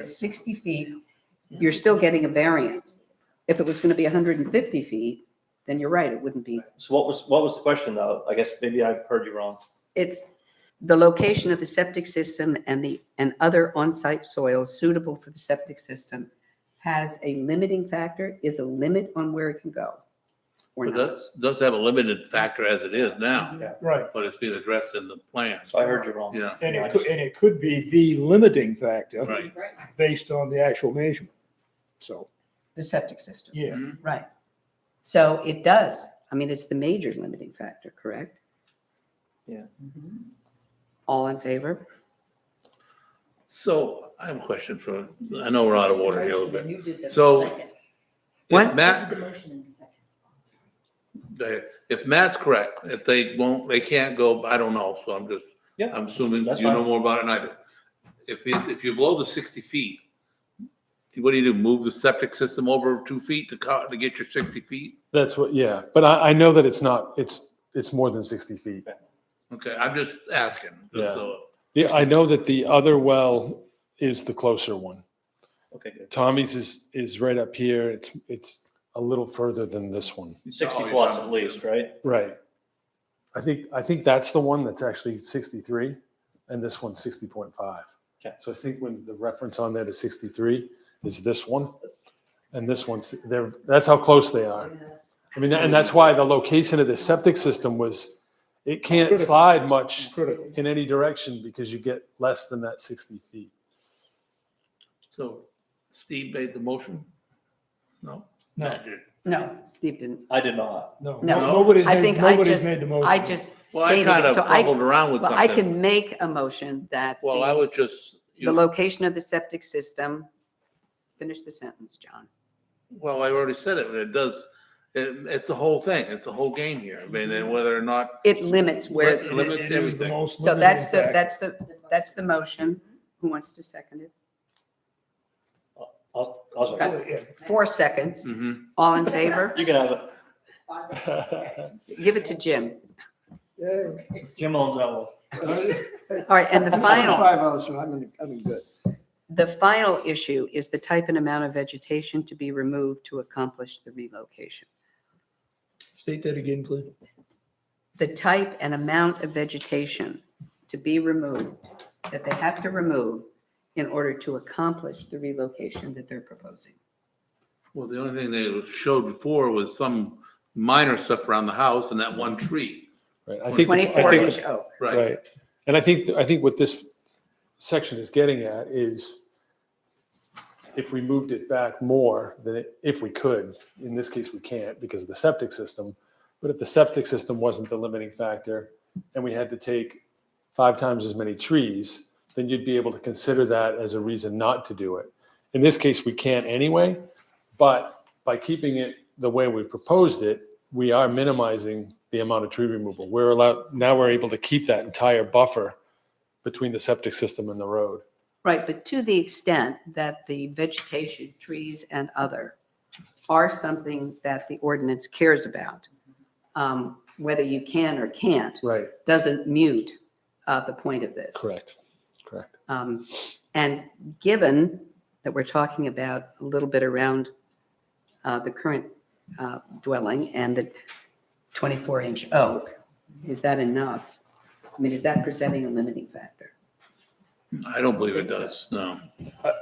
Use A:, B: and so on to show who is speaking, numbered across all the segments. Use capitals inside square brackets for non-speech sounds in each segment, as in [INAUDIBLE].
A: it's sixty feet, you're still getting a variance. If it was gonna be hundred and fifty feet, then you're right, it wouldn't be.
B: So what was, what was the question though? I guess maybe I heard you wrong.
A: It's the location of the septic system and the, and other on-site soils suitable for the septic system has a limiting factor, is a limit on where it can go. Or
C: It
A: not.
C: does, does have a limited factor as it is now,
D: Right,
C: but it's being addressed in the plan.
B: Mm-hmm. So I heard you wrong.
C: Yeah,
D: and
B: Yeah, I
D: it could,
B: just-
D: and it could be the limiting factor
C: right.
D: based on the actual measurement. So,
A: The septic system,
D: yeah,
A: right. So it does, I mean, it's the major limiting factor, correct?
B: Yeah.
A: All in favor?
C: So I have a question for, I know we're out of order here a little bit.
E: You did the
C: So-
E: second.
A: What?
C: If Matt,
E: You did the motion in the second.
C: they- if Matt's correct, if they won't, they can't go, I don't know, so I'm just,
B: Yeah.
C: I'm assuming
B: That's
C: you know
B: fine.
C: more about it than I do. If it's, if you're below the sixty feet, what do you do? Move the septic system over two feet to co to get your sixty feet?
F: That's what, yeah, but I, I know that it's not, it's, it's more than sixty feet.
C: Okay, I'm just asking. just
F: Yeah.
C: so-
F: Yeah, I know that the other well is the closer one.
B: Okay, good.
F: Tommy's is, is right up here. It's, it's a little further than this one.
B: Sixty
C: Oh,
B: plus
C: yeah.
B: at least, right?
F: Right. I think, I think that's the one that's actually sixty-three and this one's sixty point five.
B: Okay.
F: So I think when the reference on there to sixty-three is this one. And this one's, they're, that's how close they are. I mean, and that's why the location of the septic system was, it can't
D: Critical.
F: slide much
D: critical.
F: in any direction because you get less than that 60 feet.
C: So Steve made the motion? No?
D: No.
C: Matt did.
A: No, Steve didn't.
B: I did not.
D: no,
A: No.
D: nobody's
A: I
D: made,
A: think I
D: nobody's
A: just,
D: made the motion.
A: I just
C: Well, I
A: stated
C: kind
A: it,
C: of
A: so I,
C: fumbled around with
A: well, I
C: something.
A: can make a motion that
C: Well, I
A: the,
C: would just, you
A: the
C: know,
A: location of the septic system, finish the sentence, John.
C: well, I already said it, but it does, it, it's a whole thing. It's a whole game here. I mean, and whether or not,
A: It limits
C: Right.
A: where,
D: It-
C: It limits
D: it is the
C: everything.
D: most
A: so that's the,
D: limiting factor.
A: that's the, that's the motion. Who wants to second it?
B: I'll, I'll, second.
D: Yeah.
C: Mm-hmm.
A: Four seconds.
C: Mhm.
A: All in
C: [LAUGHS]
A: favor?
B: you can have it.
A: Give it to Jim.
B: Jim owns that one.
A: All right, and the final,
G: Five oh, so I'm in, I'm in good.
A: the final issue is the type and amount of vegetation to be removed to accomplish the relocation.
G: State that again, please.
A: the type and amount of vegetation to be removed, that they have to remove in order to accomplish the relocation that they're proposing.
C: well, the only thing they showed before was some minor stuff around the house and that one tree,
F: Right. I think, the- I
A: Twenty-four
F: think,
A: inch
F: the-
A: oak.
C: right?
F: right. And I think, I think what this section is getting at is if we moved it back more than it- if we could, in this case, we can't because of the septic system. But if the septic system wasn't the limiting factor and we had to take five times as many trees, then you'd be able to consider that as a reason not to do it. In this case, we can't anyway, but by keeping it the way we proposed it, we are minimizing the amount of tree removal. We're allowed, now we're able to keep that entire buffer between the septic system and the road.
A: Right, but to the extent that the vegetation, trees and other are something that the ordinance cares about, um, whether you can or can't,
F: Right.
A: doesn't mute uh, the point of this.
F: Correct, correct.
A: Um, And given that we're talking about a little bit around uh, the current uh, dwelling and the 24-inch oak, is that enough? I mean, is that presenting a limiting factor?
C: I don't believe it does, no.
D: I,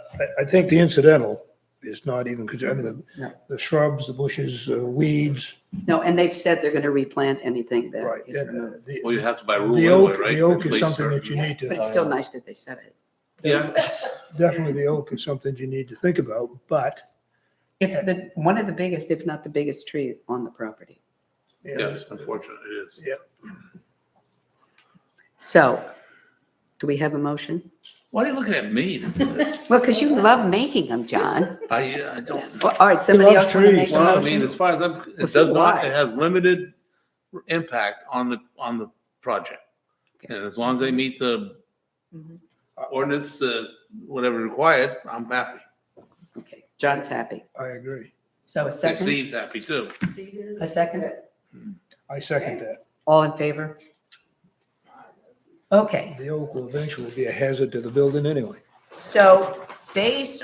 D: I think the incidental is not even, because I mean, the,
A: No.
D: the shrubs, the bushes, uh, weeds,
A: No, and they've said they're going to replant anything that
D: right.
A: is
D: and, uh,
A: removed.
D: the-
C: Well, you have to buy rule
D: The
C: anyway,
D: oak,
C: right?
D: the oak is
C: Replace
D: something
C: certain-
D: that you need
A: But
D: to,
A: it's still nice that they said it.
C: Yes,
D: definitely the oak is something you need to think about, but
A: It's the, one of the biggest, if not the biggest tree on the property.
D: you know,
C: yes, unfortunately, it is.
A: So, do we have a motion?
C: Why are you looking at me? [LAUGHS]
A: Well, because you love making them, John.
C: I, I don't.
A: Well, All right, somebody
D: loves
A: else want to
D: trees.
A: make a
C: Well, I mean,
A: motion?
C: as far as I'm, it
A: Well,
C: does
A: so do
C: not,
A: I.
C: it has limited impact on the, on the project.
A: Okay.
C: And as long as they meet the
E: Mhm.
C: ordinance, uh, whatever required, I'm happy.
A: Okay, John's happy.
D: I agree.
A: So a
C: And
A: second?
C: Steve's happy too.
A: A second?
D: I second that.
A: All in favor? Okay,
D: The oak will eventually be a hazard to the building anyway.
A: so based